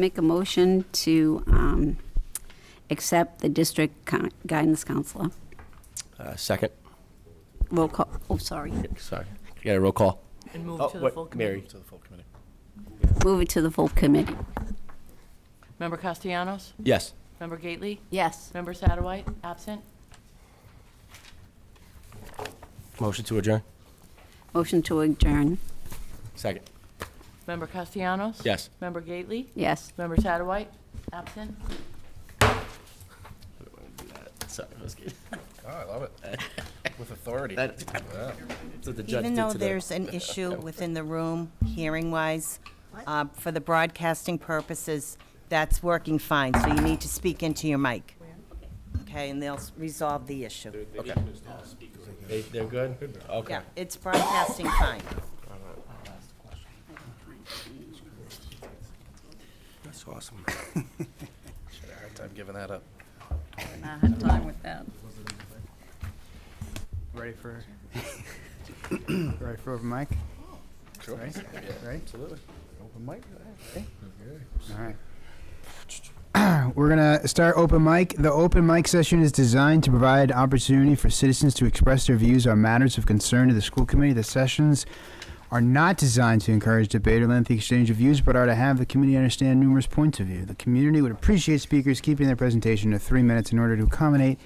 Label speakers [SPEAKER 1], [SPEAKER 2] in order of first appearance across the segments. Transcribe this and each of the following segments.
[SPEAKER 1] Make a motion to um, accept the district con- guidance counselor.
[SPEAKER 2] Uh, Second,
[SPEAKER 1] Roll call, oh, sorry.
[SPEAKER 2] sorry. Got a roll call?
[SPEAKER 3] And move
[SPEAKER 2] Oh,
[SPEAKER 3] to the
[SPEAKER 2] what-
[SPEAKER 3] full
[SPEAKER 2] Mary.
[SPEAKER 3] committee.
[SPEAKER 4] To the full committee.
[SPEAKER 1] Move it to the full committee.
[SPEAKER 3] Member Castellanos?
[SPEAKER 2] Yes.
[SPEAKER 3] Member Gately?
[SPEAKER 1] Yes.
[SPEAKER 3] Member Satterwhite? Absent?
[SPEAKER 2] Motion to adjourn?
[SPEAKER 1] Motion to adjourn.
[SPEAKER 2] Second.
[SPEAKER 3] Member Castellanos?
[SPEAKER 2] Yes.
[SPEAKER 3] Member Gately?
[SPEAKER 1] Yes.
[SPEAKER 3] Member Satterwhite? Absent?
[SPEAKER 2] Sorry, I was kidding.
[SPEAKER 4] Oh, I love it. With authority.
[SPEAKER 2] That-
[SPEAKER 4] Yeah.
[SPEAKER 2] That's what the judge
[SPEAKER 5] Even
[SPEAKER 2] did
[SPEAKER 5] though
[SPEAKER 2] today.
[SPEAKER 5] there's an issue within the room, hearing-wise, uh, for the broadcasting purposes, that's working fine, so you need to speak into your mic. Okay, and they'll s- resolve the issue.
[SPEAKER 2] They- They're good? Okay.
[SPEAKER 5] Yeah, it's broadcasting fine.
[SPEAKER 2] That's awesome.
[SPEAKER 4] Had a hard time giving that up.
[SPEAKER 1] I have time with that.
[SPEAKER 6] Ready for, ready for open mic? Sure. Ready? Absolutely. Open mic? All right. We're gonna start open mic. The open mic session is designed to provide opportunity for citizens to express their views on matters of concern to the school committee. The sessions are not designed to encourage debate or lengthy exchange of views, but are to have the community understand numerous points of view. The community would appreciate speakers keeping their presentation to three minutes in order to accommodate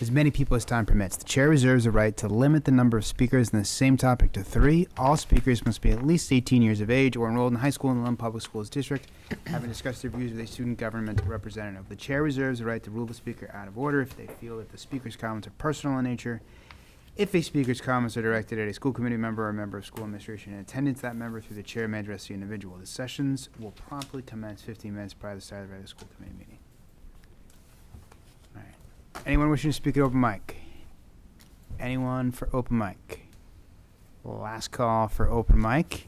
[SPEAKER 6] as many people as time permits. The chair reserves the right to limit the number of speakers in the same topic to three. All speakers must be at least 18 years of age or enrolled in high school in the Lund Public Schools District, having discussed their views with a student government representative. The chair reserves the right to rule the speaker out of order if they feel that the speaker's comments are personal in nature. If a speaker's comments are directed at a school committee member or a member of school administration in attendance, that member through the chair may address the individual. The sessions will promptly commence 15 minutes prior to the start of the regular school committee meeting. All right. Anyone wishing to speak at open mic? Anyone for open mic? Last call for open mic.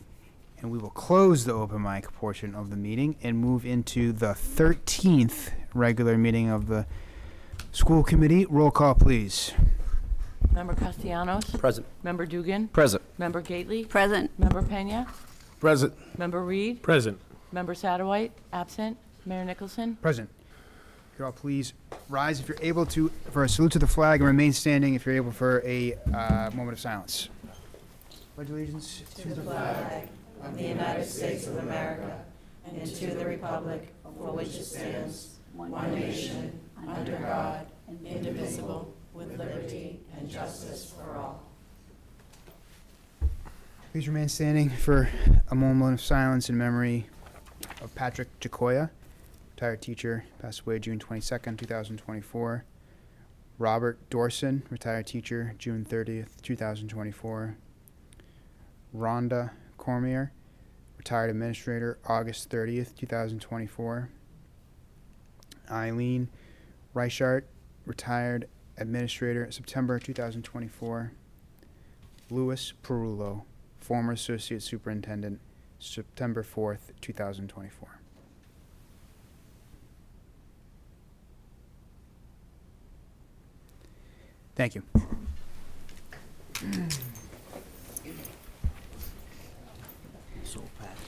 [SPEAKER 6] And we will close the open mic portion of the meeting and move into the 13th regular meeting of the school committee. Roll call, please.
[SPEAKER 3] Member Castellanos?
[SPEAKER 2] Present.
[SPEAKER 3] Member Dugan?
[SPEAKER 2] Present.
[SPEAKER 3] Member Gately?
[SPEAKER 1] Present.
[SPEAKER 3] Member Pena?
[SPEAKER 4] Present.
[SPEAKER 3] Member Reed?
[SPEAKER 4] Present.
[SPEAKER 3] Member Satterwhite? Absent? Mayor Nicholson?
[SPEAKER 6] Present. If you all please rise if you're able to for a salute to the flag and remain standing if you're able for a uh, moment of silence. Pledge allegiance to the Please remain standing for a moment of silence in memory of Patrick Jacoya, retired teacher, passed away June 22nd, 2024. Robert Dorson, retired teacher, June 30th, 2024. Rhonda Cormier, retired administrator, August 30th, 2024. Eileen Reichart, retired administrator, September 2024. Louis Perullo, former associate superintendent, September 4th, 2024. Thank you.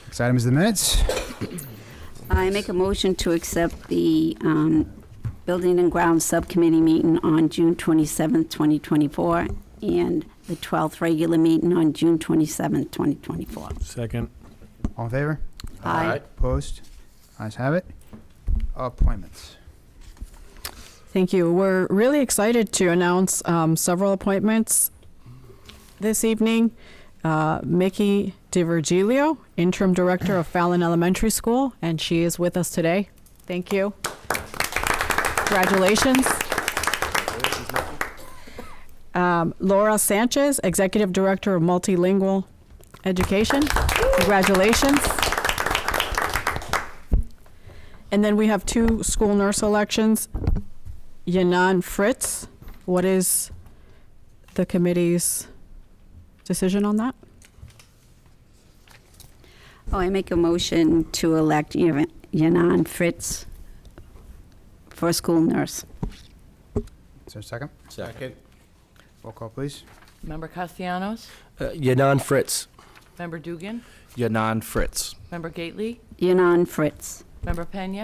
[SPEAKER 6] Next item is the minutes.
[SPEAKER 1] I make a motion to accept the um, Building and Grounds Subcommittee meeting on June 27th, 2024, and the 12th regular meeting on June 27th, 2024.
[SPEAKER 4] Second.
[SPEAKER 6] All in favor?
[SPEAKER 1] Aye.
[SPEAKER 6] Opposed? Ayes have it. Appointments.
[SPEAKER 7] Thank you. We're really excited to announce um, several appointments this evening. Uh, Mickey DiVergilio, interim director of Fallon Elementary School, and she is with us today. Thank you. Congratulations. Um, Laura Sanchez, executive director of multilingual education. Congratulations. And then we have two school nurse elections. Yanan Fritz, what is the committee's decision on that?
[SPEAKER 1] Oh, I make a motion to elect Yan- Yanan Fritz for school nurse.
[SPEAKER 6] Is there a second?
[SPEAKER 2] Second.
[SPEAKER 6] Roll call, please.
[SPEAKER 3] Member Castellanos?
[SPEAKER 2] Uh, Yanan Fritz.
[SPEAKER 3] Member Dugan?
[SPEAKER 8] Yanan Fritz.
[SPEAKER 3] Member Gately?
[SPEAKER 1] Yanan Fritz.
[SPEAKER 3] Member Pena?